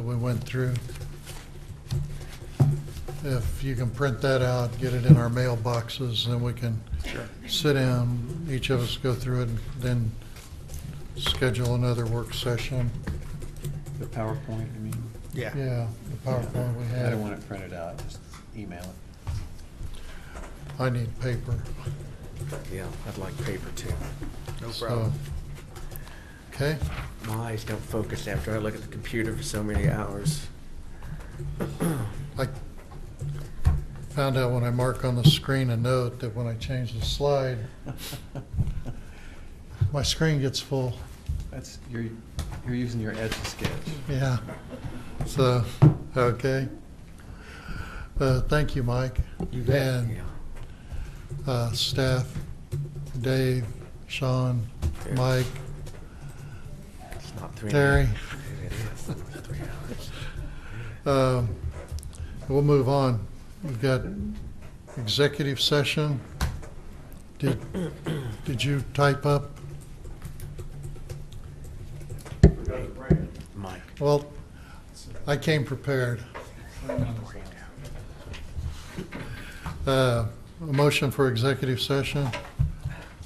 we went through. If you can print that out, get it in our mailboxes, then we can Sure. sit down, each of us go through it, and then schedule another work session. The PowerPoint, I mean. Yeah. Yeah, the PowerPoint we I don't want have. it printed out, just email it. I need paper. Yeah, I'd like paper too. No so- problem. Okay, My eyes don't focus after I look at the computer for so many hours. I found out when I mark on the screen a note that when I change the slide, my screen gets full. That's, you're, you're using your Edge sketch. Yeah, so, okay. Uh, Thank you, Mike. You Yeah. And uh, staff, Dave, Sean, Yeah. Mike, It's not three. Terry. It is only three hours. Um, We'll move on. We've got executive session. Did, did you type up? Mike. Well, I came prepared. Uh, A motion for executive session.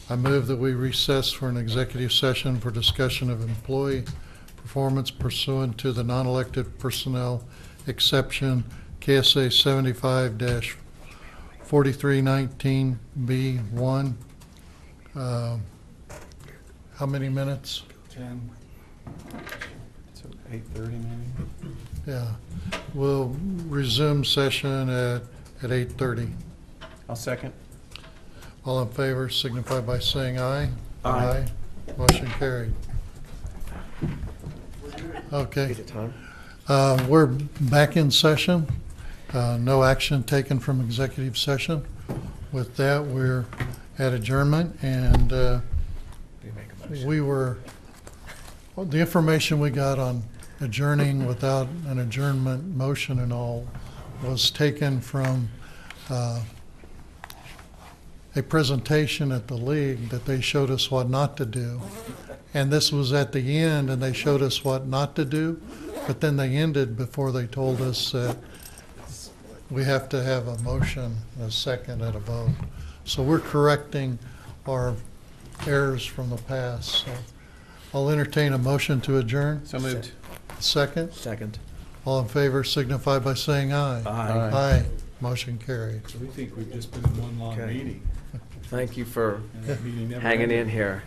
I move that we recess for an executive session for discussion of employee performance pursuant to the non-elected personnel exception, KSA seventy-five forty-three nineteen B one. Uh, How many minutes? Ten. So eight thirty maybe? Yeah, we'll resume session at, at eight thirty. I'll second. All in favor signify by saying aye. Aye. Motion carried. Okay, Is it time? uh, we're back in session. Uh, no action taken from executive session. With that, we're at adjournment and, uh, Do you make a motion? we were, well, the information we got on adjourning without an adjournment motion and all was taken from uh, a presentation at the league that they showed us what not to do. And this was at the end, and they showed us what not to do, but then they ended before they told us that we have to have a motion, a second, and a vote. So we're correcting our errors from the past. So I'll entertain a motion to adjourn. So moved. Second, Second. all in favor signify by saying aye. Aye. Aye. Motion carried. We think we've just been in one long Okay. meeting, Thank you for and that meeting never hanging ended. in here.